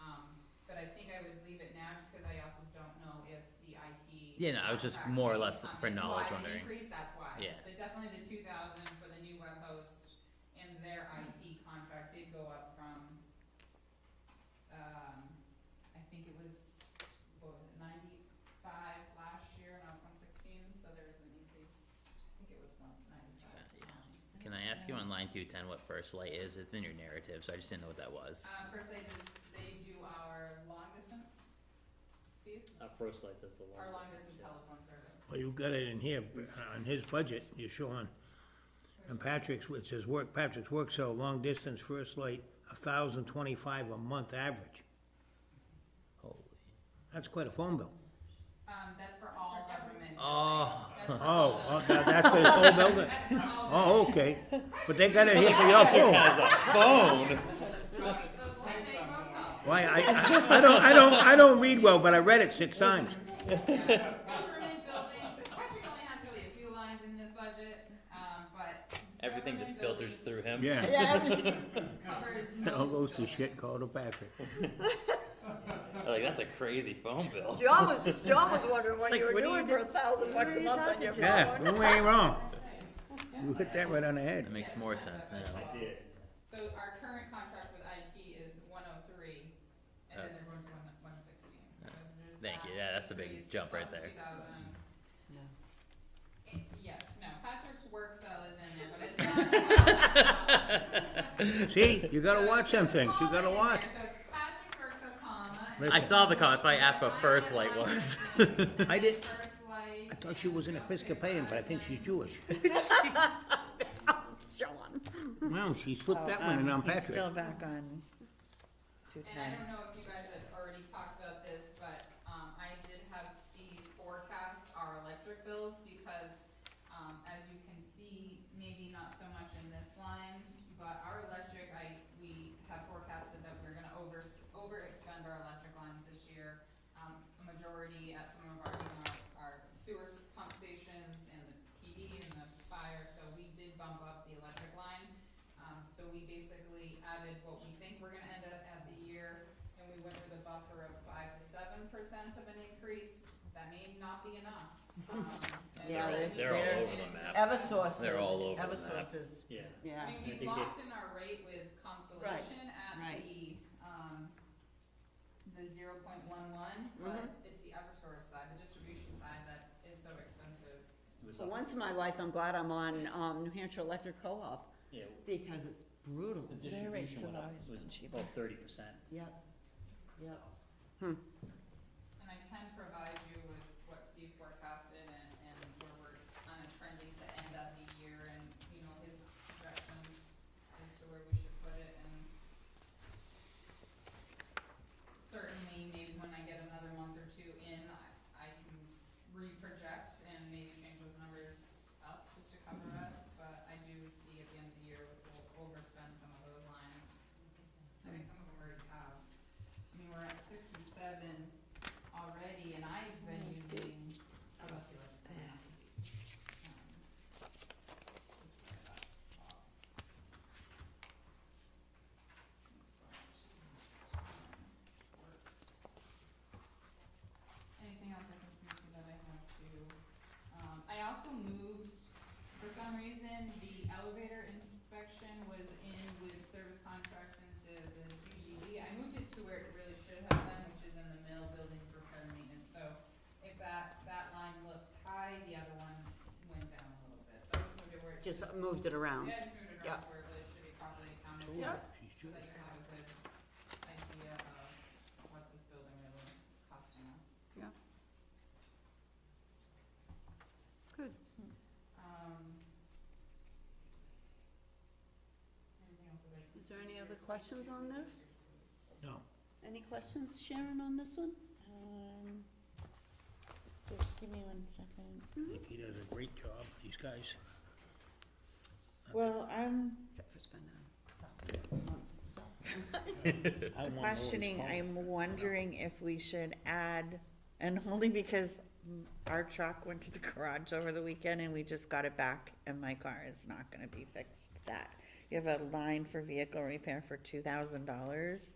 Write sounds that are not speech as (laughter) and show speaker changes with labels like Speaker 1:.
Speaker 1: Um, ask, cause I also don't know if the IT.
Speaker 2: Yeah, no, I was just
Speaker 1: contracts
Speaker 2: more or
Speaker 1: may
Speaker 2: less
Speaker 1: come
Speaker 2: for
Speaker 1: in.
Speaker 2: knowledge
Speaker 1: Why
Speaker 2: wondering.
Speaker 1: the increase, that's why.
Speaker 2: Yeah.
Speaker 1: But definitely the two thousand for the new web host and their IT contract did go up from, um, I think it was, what was it, ninety-five last year, and I was one sixteen, so there was an increase, I think it was one ninety-five.
Speaker 2: Uh, yeah. Can I ask you on line two ten what first light is? It's in your narrative, so I just didn't know what that was.
Speaker 1: Uh, first they just, they do our long distance, Steve,
Speaker 3: Our Uh, first light does the long.
Speaker 1: our long distance telephone service.
Speaker 4: Well, you've got it in here, on his budget, you're showing, and Patrick's, which says work, Patrick's work cell, long distance, first light, a thousand twenty-five a month average.
Speaker 2: Holy.
Speaker 4: That's quite a phone bill.
Speaker 1: Um, that's for all government.
Speaker 2: Oh.
Speaker 1: buildings. That's
Speaker 4: (laughs)
Speaker 1: for all-
Speaker 4: Oh, oh, that- that's for the whole building?
Speaker 1: That's for
Speaker 4: (laughs)
Speaker 1: all.
Speaker 4: Oh, okay, but they got it here for your phone.
Speaker 2: Phone.
Speaker 1: buildings. So it's like they phone calls.
Speaker 4: Why, I, I, I don't, I don't, I don't read well, but I read it six times.
Speaker 1: Government buildings, and Patrick only has really a few lines in this budget, um, but.
Speaker 3: Everything just
Speaker 1: government
Speaker 3: filters through
Speaker 1: buildings
Speaker 3: him.
Speaker 1: Covers most
Speaker 4: It All goes to shit
Speaker 1: buildings.
Speaker 4: called a Patrick.
Speaker 3: Like, that's a crazy phone bill.
Speaker 5: John was, John was wondering what
Speaker 6: like,
Speaker 5: you were
Speaker 6: what are
Speaker 5: doing
Speaker 6: you
Speaker 5: for a thousand bucks a month on your phone.
Speaker 4: Yeah, we ain't wrong. You hit that right on the head.
Speaker 2: That makes more sense now.
Speaker 1: So our current contract with IT is one oh three, and then they're going to one, one sixteen, so there's that.
Speaker 2: Thank you. Yeah, that's a big
Speaker 1: increase
Speaker 2: jump right
Speaker 1: plus the
Speaker 2: there.
Speaker 1: 2,000.
Speaker 6: No.
Speaker 1: Eh, Yes, no, Patrick's work cell is in there, but it's not. (laughs)
Speaker 2: (laughs)
Speaker 4: See, you gotta watch them things, you
Speaker 1: Comma
Speaker 4: gotta
Speaker 1: in
Speaker 4: watch.
Speaker 1: there, So it's Patrick's work cell, comma. and
Speaker 4: Listen.
Speaker 2: I saw the comments, but I asked what first light was.
Speaker 4: (laughs) I did-
Speaker 1: First light.
Speaker 4: I thought she was an Episcopalian, but I think she's Jewish.
Speaker 5: (laughs) John.
Speaker 4: Well, she slipped that one in
Speaker 5: Oh, um,
Speaker 4: on
Speaker 6: Oh, He's
Speaker 4: Patrick.
Speaker 6: still back on two
Speaker 1: And I
Speaker 6: ten.
Speaker 1: don't know if you guys had already talked about this, but, um, I did have Steve forecast our electric bills because, um, as you can see, maybe not so much in this line, but our electric, I, we have forecasted that we're gonna over, over expend our electric lines this year. Um, a majority at some of our, you know, our sewer s- pump stations and the PD and the fire, so we did bump up the electric line. Um, so we basically added what we think we're gonna end up at the year, and we went with a buffer of five to seven percent of an increase. That may not be enough. Um, and
Speaker 6: Yeah,
Speaker 1: I mean,
Speaker 3: they're all
Speaker 1: and
Speaker 3: over the
Speaker 1: it
Speaker 3: map.
Speaker 1: just-
Speaker 6: Eversource is,
Speaker 2: They're all over the map.
Speaker 6: Eversource is,
Speaker 3: Yeah.
Speaker 6: yeah.
Speaker 1: I mean,
Speaker 3: I
Speaker 1: we
Speaker 3: think
Speaker 1: locked in our rate with Constellation at
Speaker 6: right.
Speaker 1: the, um, the zero point one one, but it's the Eversource side, the distribution side that is so expensive.
Speaker 5: For once in my life, I'm glad I'm on, um, New Hampshire Electric Co-op,
Speaker 3: Yeah,
Speaker 5: because it's brutal.
Speaker 3: the
Speaker 6: Their rates
Speaker 3: distribution
Speaker 6: have
Speaker 3: went up,
Speaker 6: always
Speaker 3: was
Speaker 6: been cheaper.
Speaker 3: about thirty percent.
Speaker 5: Yep, yep.
Speaker 1: And I can provide you with what Steve forecasted and, and where we're kind of trending to end up the year and, you know, his projections as to where we should put it and certainly maybe when I get another month or two in, I, I can reproject and maybe change those numbers up just to cover us, but I do see at the end of the year, we'll overspend some of those lines. I think some of them already have. I mean, we're at sixty-seven already, and I've been using, how about the other one?
Speaker 6: Yeah.
Speaker 1: Um, just right up top. Oops, sorry, it's just- just on work. Anything else I can speak to that I have to, um, I also moved, for some reason, the elevator inspection was in with service contracts into the PGD. I moved it to where it really should have been, which is in the mill buildings repair maintenance, so if that, that line looks high, the other one went down a little bit, so I just moved it where it
Speaker 5: Just
Speaker 1: should.
Speaker 5: moved it around.
Speaker 1: Yeah, I just moved it around
Speaker 5: yeah.
Speaker 1: where it really should be properly accounted for
Speaker 5: Yeah.
Speaker 1: so that you have a good idea of what this building really is costing us.
Speaker 5: Yeah. Good.
Speaker 1: Um. anything else that I can
Speaker 5: Is there
Speaker 1: see
Speaker 5: any
Speaker 1: here?
Speaker 5: other
Speaker 1: So I
Speaker 5: questions
Speaker 1: think
Speaker 5: on
Speaker 1: we
Speaker 5: this?
Speaker 1: reduces-
Speaker 4: No,
Speaker 5: Any questions, Sharon, on this one?
Speaker 6: Um, Just give me one second.
Speaker 4: I think he does a great job, these guys.
Speaker 6: Well, I'm
Speaker 5: Except for spending
Speaker 4: I want to know his
Speaker 6: questioning,
Speaker 4: phone.
Speaker 6: I'm wondering if we should add, and (laughs) only because m- our truck went to the garage over the weekend and we just got it back and my car is not gonna be fixed, that. You have a line for vehicle repair for two thousand dollars.